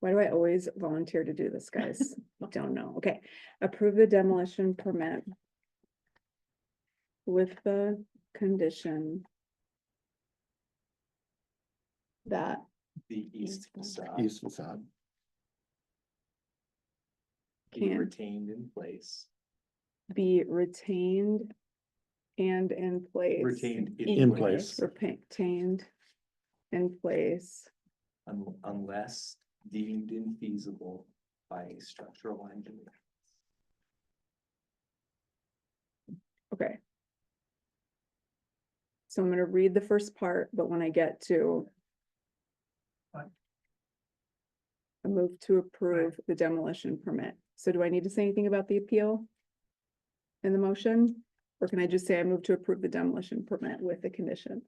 Why do I always volunteer to do this, guys? Don't know. Okay, approve the demolition permit. With the condition. That the east East facade east facade. be can retained in place, be retained and in place. retained In place. Retained in place un- Unless deemed infeasible by a structural engineer. Okay. So I'm gonna read the first part, but when I get to. Fine. I move to approve the demolition permit. So do I need to say anything about the appeal? In the motion, or can I just say I move to approve the demolition permit with the condition?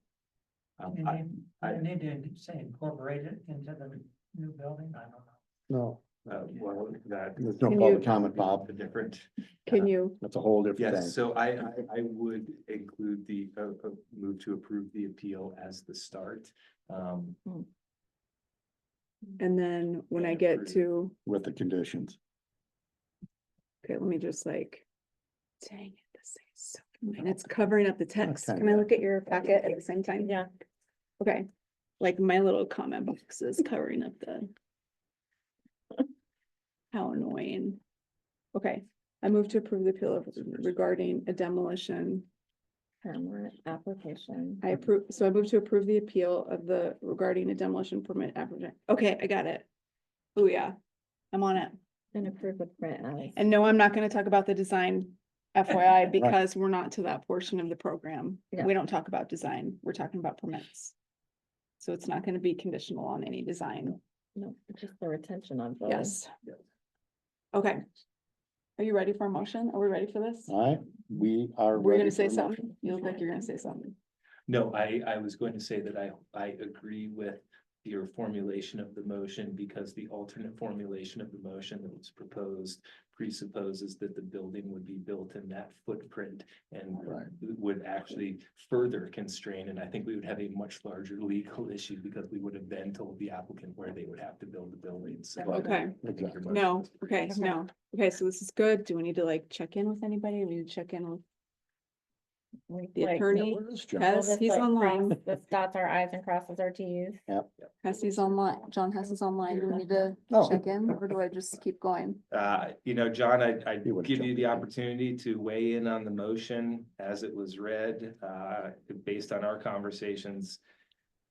Um, You I, need, I- you need to say incorporate it into the new building, I don't know. No, uh, well, that. there's no Can public you- comment, Bob. The different, Can you, That's a whole different yes, thing. so I, I, I would include the, uh, uh, move to approve the appeal as the start. Um, and then when I And get approve. to, With the conditions. okay, let me just like. Dang it, this thing is so, and it's covering up the text. Okay. Can I look at your packet at the same time? Yeah, Okay, like my little comment box is covering up the. How annoying. Okay, I move to approve the appeal of- regarding a demolition. permit application. I approve, so I move to approve the appeal of the regarding a demolition permit. applica- Okay, I got it. Oh, yeah. I'm on it. Been approved with Brent Ellis. And no, I'm not gonna talk about the design FYI because we're not to that portion of the program. Yeah. We don't talk about design. We're talking about permits. So it's not gonna be conditional on any design. No, just the retention on. voting. Yes. Okay. Are you ready for a motion? Are we ready for this? All right, we are. We're Uh, ready gonna say for a motion. something. You look like you're gonna say something. no, I, I was going to say that I, I agree with your formulation of the motion because the alternate formulation of the motion that was proposed presupposes that the building would be built in that footprint and Right. would actually further constrain, and I think we would have a much larger legal issue because we would have then told the applicant where they would have to build the buildings. So I Okay. think your Exactly. motion No, is- okay, Okay. no. Okay, so this is good. Do we need to like check in with anybody? We need to check in with, We The like- attorney Where is John? we'll Hess, just, he's like, online. cross the dots our i's and crosses our t's. Hesse's online, John Hess is online. Do we need to Oh. check in or do I just keep going? Uh, you know, John, I, I You would've give you jumped the in. opportunity to weigh in on the motion as it was read, uh, based on our conversations.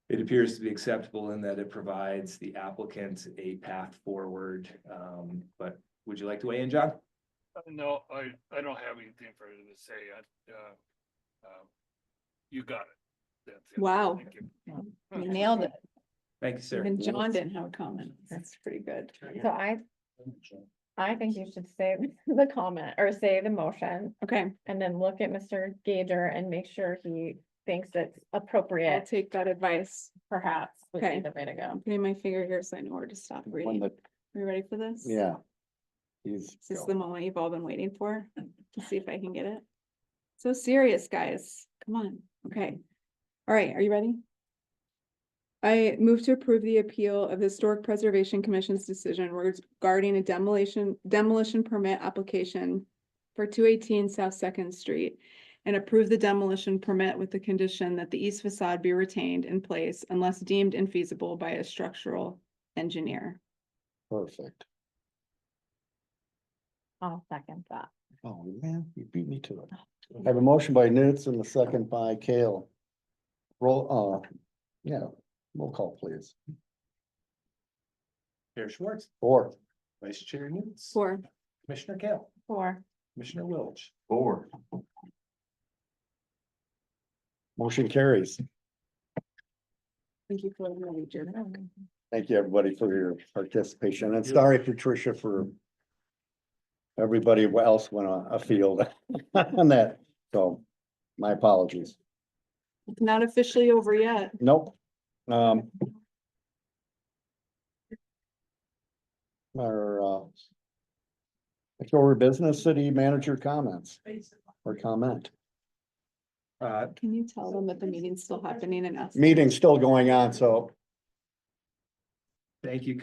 It appears to be acceptable in that it provides the applicant a path forward, um, but would you like to weigh in, John? Uh, No, I, I don't have anything further to say. I, uh, um, you got it. That's it. Wow. Thank you. You nailed it. Thank you, sir. Even John didn't have a comment. That's pretty good. So I, I think you should say the comment or say the motion Okay, and then look at Mr. Gager and make sure he thinks it's I'll appropriate, take that advice. perhaps. would Okay. be The way to go. I'm putting my finger here so I know where to stop When reading. the, Are you ready for this? yeah. He's. Is This the moment you've all been waiting for, to see if I can get it. So serious, guys, come on, okay. All right, are you ready? I move to approve the appeal of the Historic Preservation Commission's decision regarding a demolition, demolition permit application for two eighteen South Second Street and approve the demolition permit with the condition that the east facade be retained in place unless deemed infeasible by a structural engineer. Perfect. I'll second that. Oh, man, you beat me to it. I have a motion by Newt and a second by Kale. Roll, uh, yeah, roll call please. Chair Schwartz, Or Vice Chair Newts. Four, Commissioner Kale, Four. Commissioner Welch. Four. motion carries. thank you for letting me do that. Mm-hmm. Thank you, everybody, for your participation and sorry, Patricia, for everybody else went on afield on that. So my apologies. It's not officially over yet. Nope. Um. Our, uh. Next order of business, city manager comments or comment. Uh, Can you tell them that the meeting's still happening and us? Meeting's still going on, so thank you,